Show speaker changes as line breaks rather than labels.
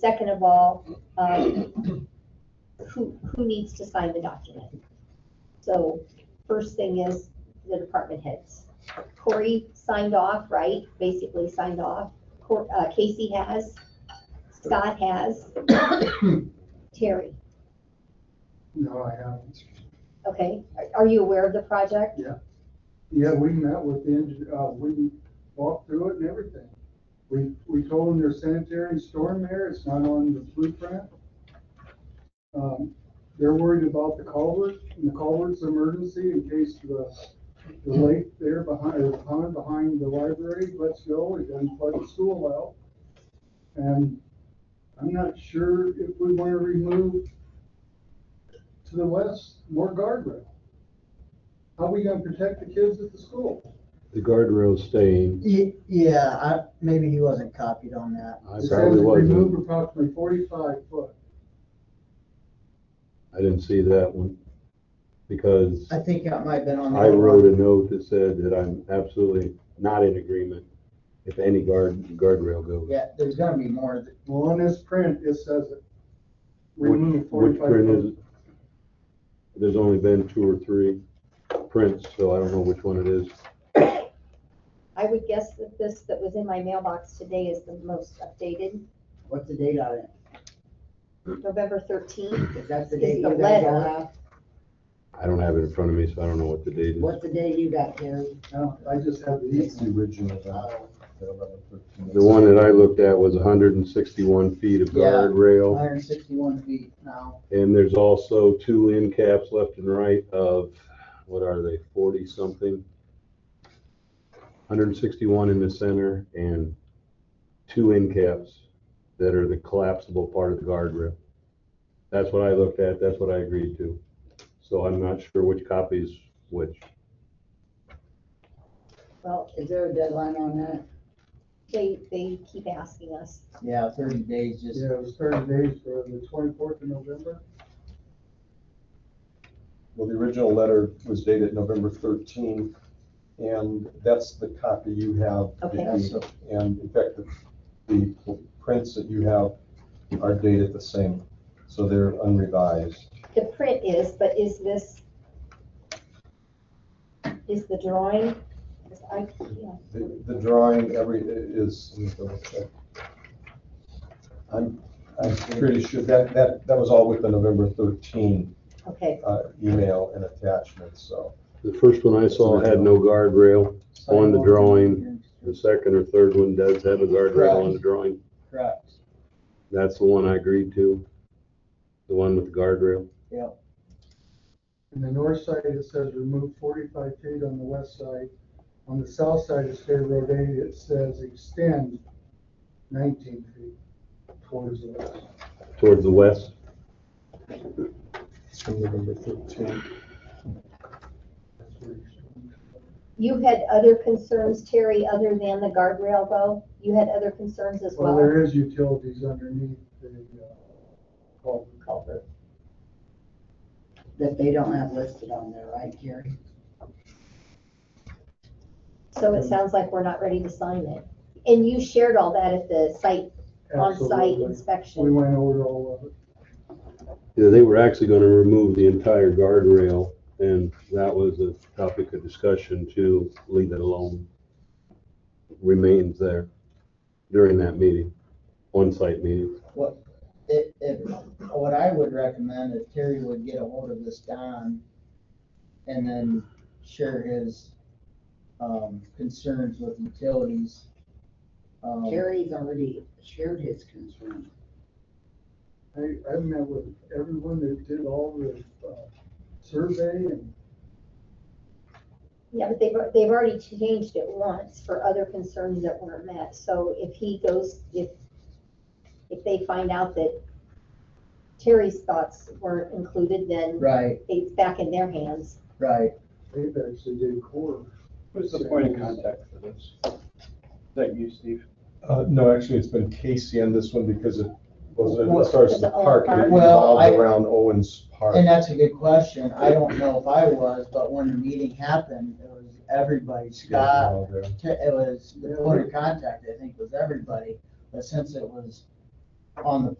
second of all, um, who, who needs to sign the document? So first thing is the department heads. Corey signed off, right? Basically signed off. Cor- uh, Casey has, Scott has, Terry,
No, I haven't.
okay? Are- Are you aware of the project?
Yeah, we met with the, engi- uh, we walked through it and everything. We, we told them there's sanitary and storm there, it's not on the blueprint. Um, they're worried about the culvert, and the culvert's emergency in case the, the lake there behind, or the pond behind the library lets go, it doesn't flood the school out. And I'm not sure if we wanna remove to the west more guardrail. How are we gonna protect the kids at the school?
The guardrail staying,
Ye- Yeah, I, maybe he wasn't copied on that.
I
It says
probably
Remove
wasn't,
approximately forty-five foot.
I didn't see that one, because
I think that might have been on. the
I
other
wrote
one.
a note that said that I'm absolutely not in agreement if any guard, guardrail goes.
Yeah, there's gonna be more. that-
Well, on this print, it says it.
Which-
Remove
Which
forty-five
print is
foot.
it? There's only been two or three prints, so I don't know which one it is.
I would guess that this that was in my mailbox today is the most updated,
What's the date on it?
November thirteenth.
Is that the
Is
date
the
you guys
letter.
got out?
I don't have it in front of me, so I don't know what the date is.
What's the date you got, Terry?
No, I just have the
It's
easy.
the original,
uh,
the eleven thirteen.
The one that I looked at was hundred and sixty-one feet of
Yeah.
guardrail,
161 feet now.
and there's also two end caps left and right of, what are they, forty-something? Hundred and sixty-one in the center and two end caps that are the collapsible part of the guardrail. That's what I looked at, that's what I agreed to. So I'm not sure which copies which.
Well,
Is there a deadline on that?
they, they keep asking us.
Yeah, 30 days just.
Yeah, it was thirty days for the twenty-fourth of November.
Well, the original letter was dated November thirteen, and that's the copy you have.
Okay.
Yeah, so-
Mm-hmm.
And in fact, the- the prints that you have are dated the same, so they're unrevised.
The print is, but is this, is the drawing? is I, yeah,
The the drawing, every, is, let me double check. I'm, I'm pretty sure that, that, that was all with the November thirteen
okay,
uh, email and attachment, so.
The first one I saw had no guardrail, On the drawing. the second or third one does have a guardrail on the drawing.
Correct.
That's the one I agreed to, the one with the guardrail.
On the north side, it says remove forty-five feet on the west side. On the south side of State Road eight, it says extend nineteen feet towards the west.
Towards the west,
It's from November thirteen.
That's where it's-
you had other concerns, Terry, other than the guardrail though? You had other concerns as
Well,
well?
there is utilities underneath the, uh, culvert.
Culvert. That they don't have listed on there, right, Terry?
So it sounds like we're not ready to sign it. And you shared all that at the site, on-site
Absolutely. We
inspection.
went over all of it.
Yeah, they were actually gonna remove the entire guardrail, and that was a topic of discussion to leave it alone. Remains there during that meeting, on-site meeting.
It, it, what I would recommend is Terry would get a hold of this Don and then share his, um, concerns with utilities. Um,
Terry's already shared his concern.
I, I met with everyone that did all the, uh, survey and
Yeah, but they've, they've already changed it once for other concerns that weren't met. So if he goes, if, if they find out that Terry's thoughts weren't included, then
Right,
it's back in their hands.
right.
they actually did core.
Who's the point of contact for this? Is that you, Steve?
Uh, no, actually, it's been Casey on this one because it wasn't, as far as the park, it
Well, I-
revolved around Owens Park.
And that's a good question. I don't know if I was, but when the meeting happened, it was everybody, Scott, Te- it was, the point of contact, I think, was everybody, but since it was on the